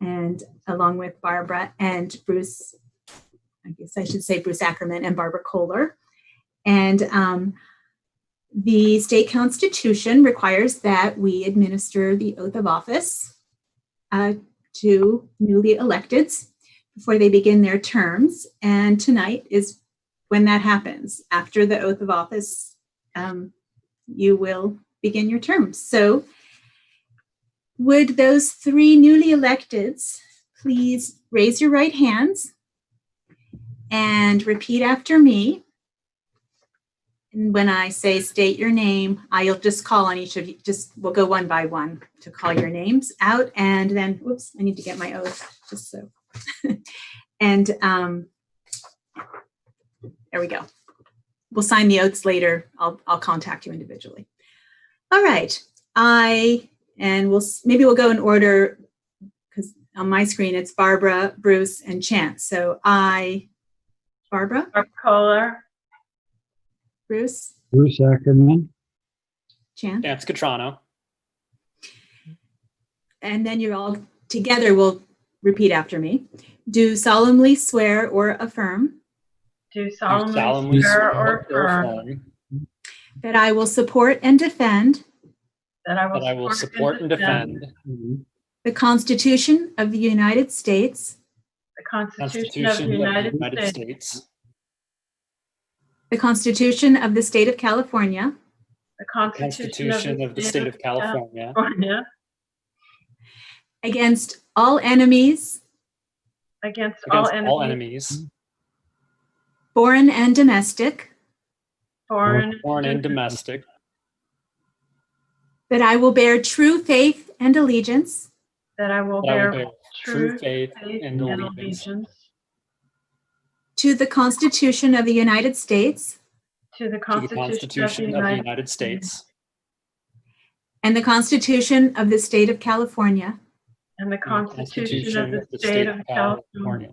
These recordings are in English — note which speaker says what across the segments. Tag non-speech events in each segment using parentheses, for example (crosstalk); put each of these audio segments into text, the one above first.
Speaker 1: and along with Barbara and Bruce, I guess I should say Bruce Ackerman and Barbara Kohler. And um, the state constitution requires that we administer the oath of office uh, to newly electeds before they begin their terms. And tonight is when that happens. After the oath of office, um, you will begin your term. So would those three newly electeds please raise your right hands and repeat after me? And when I say state your name, I'll just call on each of you, just, we'll go one by one to call your names out and then, whoops, I need to get my oath, just so. (laughs) And, um, there we go. We'll sign the oaths later. I'll, I'll contact you individually. All right, I, and we'll, s- maybe we'll go in order because on my screen, it's Barbara, Bruce, and Chance. So I, Barbara,
Speaker 2: Barb Kohler,
Speaker 1: Bruce,
Speaker 3: Bruce Ackerman,
Speaker 1: Chance.
Speaker 4: Chance Catrano.
Speaker 1: and then you all together will repeat after me. Do solemnly swear or affirm
Speaker 2: do
Speaker 4: do
Speaker 2: solemnly swear or affirm
Speaker 4: affirm
Speaker 1: that I will support and defend
Speaker 2: that
Speaker 4: that I
Speaker 2: I
Speaker 4: will support and defend
Speaker 3: Mm-hmm.
Speaker 1: the Constitution of the United States,
Speaker 2: the
Speaker 4: the
Speaker 2: Constitution of the
Speaker 4: Constitution
Speaker 2: United States,
Speaker 4: States,
Speaker 1: the Constitution of the State of California,
Speaker 2: the
Speaker 4: the
Speaker 2: Constitution
Speaker 4: Constitution of the State of California,
Speaker 2: California,
Speaker 1: against all enemies,
Speaker 2: against all
Speaker 4: against all
Speaker 2: enemies,
Speaker 4: enemies,
Speaker 1: foreign and domestic,
Speaker 2: foreign
Speaker 4: foreign and domestic,
Speaker 1: that I will bear true faith and allegiance
Speaker 2: that I will
Speaker 4: that I will
Speaker 2: bear
Speaker 4: bear
Speaker 2: true
Speaker 4: true faith
Speaker 2: faith
Speaker 4: and allegiance
Speaker 1: to the Constitution of the United States
Speaker 2: to the
Speaker 4: to the
Speaker 2: Constitution
Speaker 4: Constitution of the United States
Speaker 1: and the Constitution of the State of California,
Speaker 2: and the
Speaker 4: and
Speaker 2: Constitution of the State of California,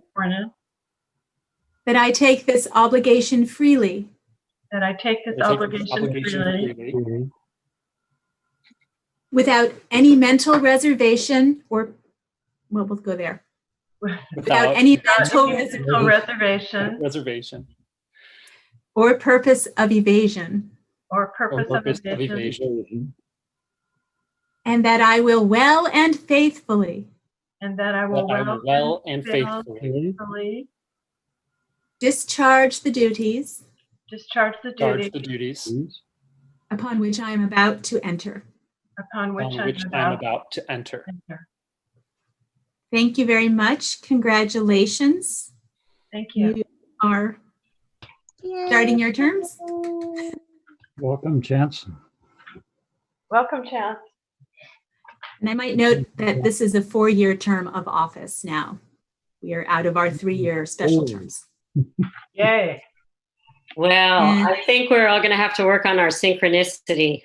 Speaker 1: that I take this obligation freely
Speaker 2: that I take this
Speaker 4: I take this
Speaker 2: obligation freely
Speaker 4: freely,
Speaker 3: Bruce
Speaker 1: without any mental reservation or, well, we'll go there. Without any mental
Speaker 2: without
Speaker 1: reservation
Speaker 2: mental reservation
Speaker 4: reservation
Speaker 1: or purpose of evasion,
Speaker 2: or
Speaker 4: or
Speaker 2: purpose of evasion,
Speaker 3: Ackerman,
Speaker 1: and that I will well and faithfully
Speaker 2: and that I will
Speaker 4: that I will well and faithfully
Speaker 2: faithfully
Speaker 1: discharge the duties
Speaker 2: discharge the
Speaker 4: charge the
Speaker 2: duties
Speaker 4: duties
Speaker 3: Bruce
Speaker 1: upon which I am about to enter.
Speaker 2: upon which
Speaker 4: on
Speaker 2: I
Speaker 4: which
Speaker 2: am
Speaker 4: I am
Speaker 2: about to
Speaker 4: about to enter.
Speaker 2: enter.
Speaker 1: Thank you very much. Congratulations.
Speaker 2: Thank you.
Speaker 1: You are starting your terms.
Speaker 3: Welcome, Chance.
Speaker 2: Welcome, Chance.
Speaker 1: And I might note that this is a four year term of office now. We are out of our three year special
Speaker 3: Oh.
Speaker 1: terms.
Speaker 2: Yay.
Speaker 5: Well,
Speaker 1: And-
Speaker 5: I think we're all going to have to work on our synchronicity.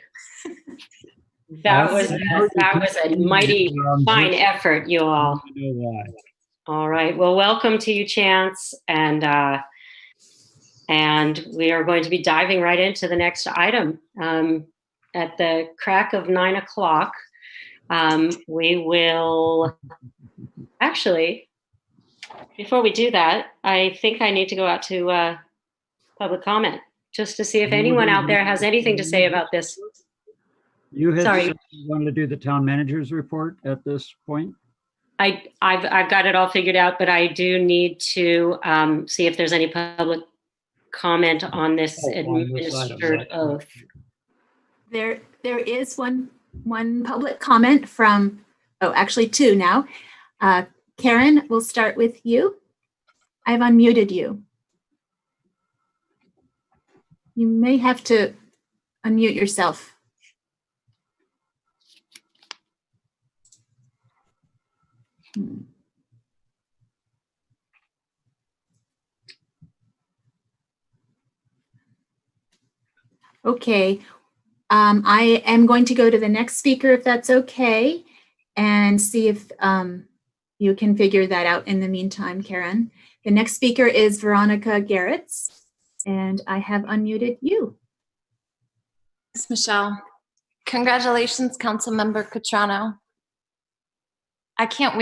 Speaker 5: That was, that was a mighty fine effort, you all.
Speaker 3: I know why.
Speaker 5: All right. Well, welcome to you, Chance. And, uh, and we are going to be diving right into the next item. Um, at the crack of nine o'clock, um, we will actually, before we do that, I think I need to go out to uh, public comment just to see if anyone out there has anything to say about this.
Speaker 3: You had
Speaker 5: Sorry.
Speaker 3: said you wanted to do the town manager's report at this point?
Speaker 5: I, I've, I've got it all figured out, but I do need to um, see if there's any public comment on this
Speaker 3: Oh, on this item,
Speaker 5: administered
Speaker 3: right.
Speaker 5: oath.
Speaker 1: There, there is one, one public comment from, oh, actually two now. Uh, Karen, we'll start with you. I've unmuted you. You may have to unmute yourself. Hmm. Okay. Um, I am going to go to the next speaker if that's okay and see if um, you can figure that out in the meantime, Karen. The next speaker is Veronica Garretts, and I have unmuted you.
Speaker 6: Thanks, Michelle. Congratulations, Councilmember Catrano. I can't wait.